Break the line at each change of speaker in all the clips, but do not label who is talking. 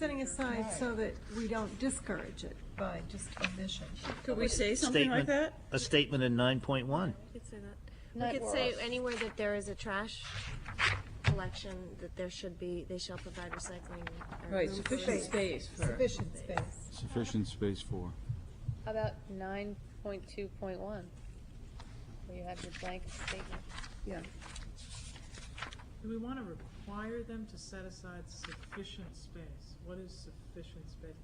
setting aside so that we don't discourage it by just omission.
Could we say something like
statement,
that?
a statement in nine point one.
We could say anywhere that there is a trash collection, that there should be, they shall provide recycling. or
Right,
room for
sufficient
recycling.
space for,
Sufficient space.
Sufficient space for.
How about nine point two point one? Where you have your blanket statement.
yeah.
Do we want to require them to set aside sufficient space? What is sufficient space?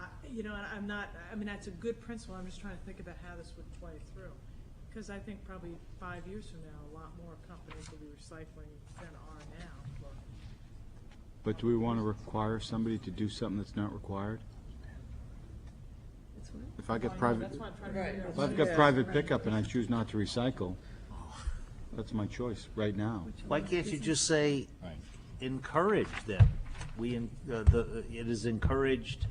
I, you know, and I'm not, I mean, that's a good principle, I'm just trying to think about how this would play through. Because I think probably five years from now, a lot more companies will be recycling than are now. but-
But do we want to require somebody to do something that's not required? If I get private,
That's why I'm trying to figure out.
if I've got private pickup and I choose not to recycle, that's my choice right now.
Why can't you just say, encourage them? We, en- uh, the, it is encouraged,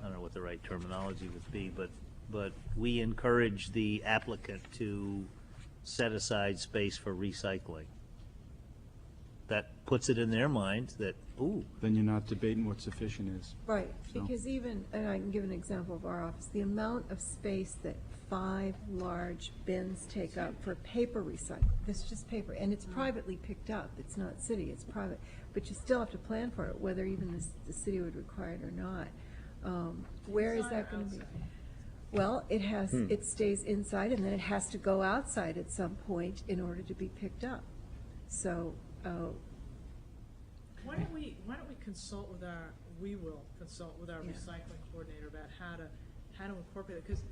I don't know what the right terminology would be, but, but we encourage the applicant to set aside space for recycling. That puts it in their mind that, ooh,
Then you're not debating what sufficient is.
Right,
So-
because even, and I can give an example of our office, the amount of space that five large bins take up for paper recycling, this is just paper, and
Mm.
it's privately picked up, it's not city, it's private, but you still have to plan for it, whether even the, s- the city would require it or not. Um, Where is
Inside or
that going to be?
outside?
Well, it has, it stays inside and then it has to go outside at some point in order to be picked up. So, uh,
Why don't we, why don't we consult with our, we will consult with our recycling coordinator about how to, how to incorporate it, because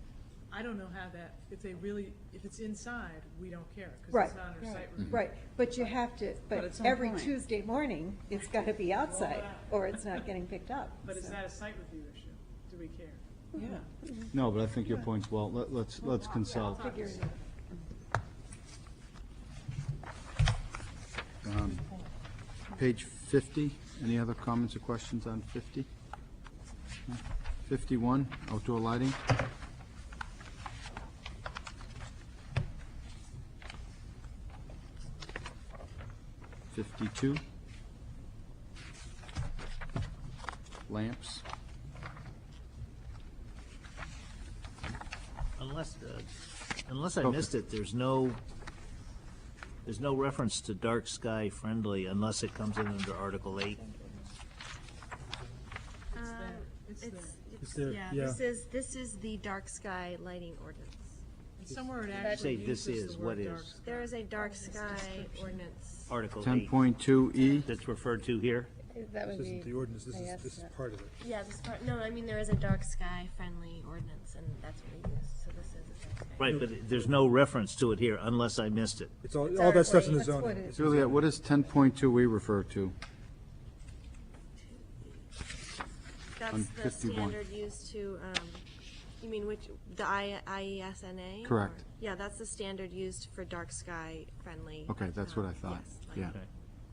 I don't know how that, if they really, if it's inside, we don't care, because
Right. Mm-hmm.
it's not in our site review.
right, but you have to,
But
but
at some
every
point.
Tuesday morning, it's got to be outside or it's not getting picked up.
But is
So-
that a site review issue? Do we care?
No, but I think your point's well, let- let's, let's consult. Um, Page 50, any other comments or questions on 50? 51, outdoor lighting. Fifty-two. Lamps.
unless, uh, unless I missed it, there's no, there's no reference to dark sky friendly unless it comes in under Article eight.
Um,
It's there.
It's,
It's
it's,
there,
yeah,
yeah.
this is, this is the dark sky lighting ordinance.
And Somewhere it
Say
actually
this
uses
is,
the
what
word
is.
dark sky.
There is a dark sky ordinance.
Article
Ten
Oh, eight
point two E,
that's referred to here.
That would
This isn't the
be,
ordinance, this
I
is,
asked
this is
that.
part of it.
Yeah, this part, no, I mean, there is a dark sky friendly ordinance and that's what we use, so this is a dark sky.
Right, but there's no reference to it here unless I missed it.
It's all, all that stuff's in the
That's what
zoning.
it is.
it's really, what does ten point two E refer to? on
That's the
51.
standard used to, um, you mean which, the I, E IESNA? or-
Correct.
Yeah, that's the standard used for dark sky friendly. um,
Okay, that's what I thought,
yes, like-
yeah.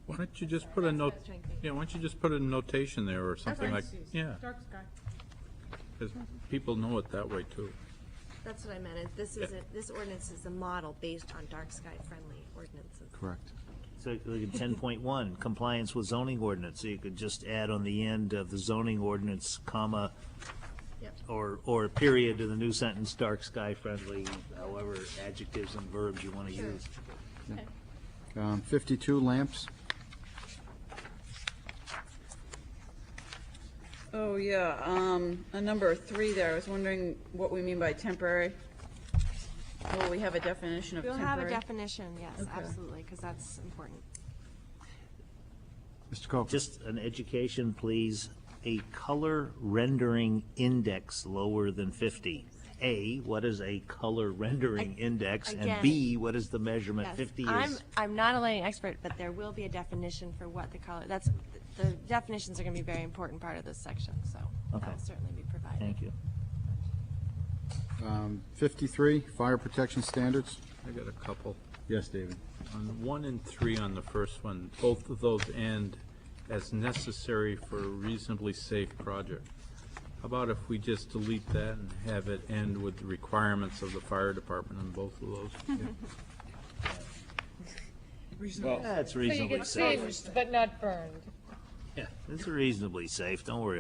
Why don't you just put a note,
what I was trying to think.
yeah, why don't you just put a notation there or something like,
Parentheses,
yeah,
Dark sky.
because people know it that way too.
That's what I meant, is this is, a- this ordinance is a model based on dark sky friendly ordinances.
Correct.
So look at ten point one, compliance with zoning ordinance, so you could just add on the end of the zoning ordinance, comma,
Yep.
or, or period to the new sentence, dark sky friendly, however adjectives and verbs you want to use.
Um, fifty-two lamps,
Oh, yeah, um, a number three there, I was wondering what we mean by temporary. Well, we have a definition of
We'll
temporary.
have a definition, yes, absolutely, because that's important.
Mr. Coker.
Just an education, please, a color rendering index lower than fifty. A, what is a color rendering index? And
again-
B, what is the measurement?
Yes.
Fifty
I'm,
is,
I'm not a lighting expert, but there will be a definition for what the color, that's, the definitions are going to be a very important part of this section, so that
Okay.
will certainly be provided.
thank you.
Um, fifty-three, fire protection standards.
I got a couple.
Yes, David.
On one and three on the first one, both of those end as necessary for a reasonably safe project. How about if we just delete that and have it end with the requirements of the fire department on both of those?
That's reasonably safe.
but not burned.
Yeah, it's reasonably safe, don't worry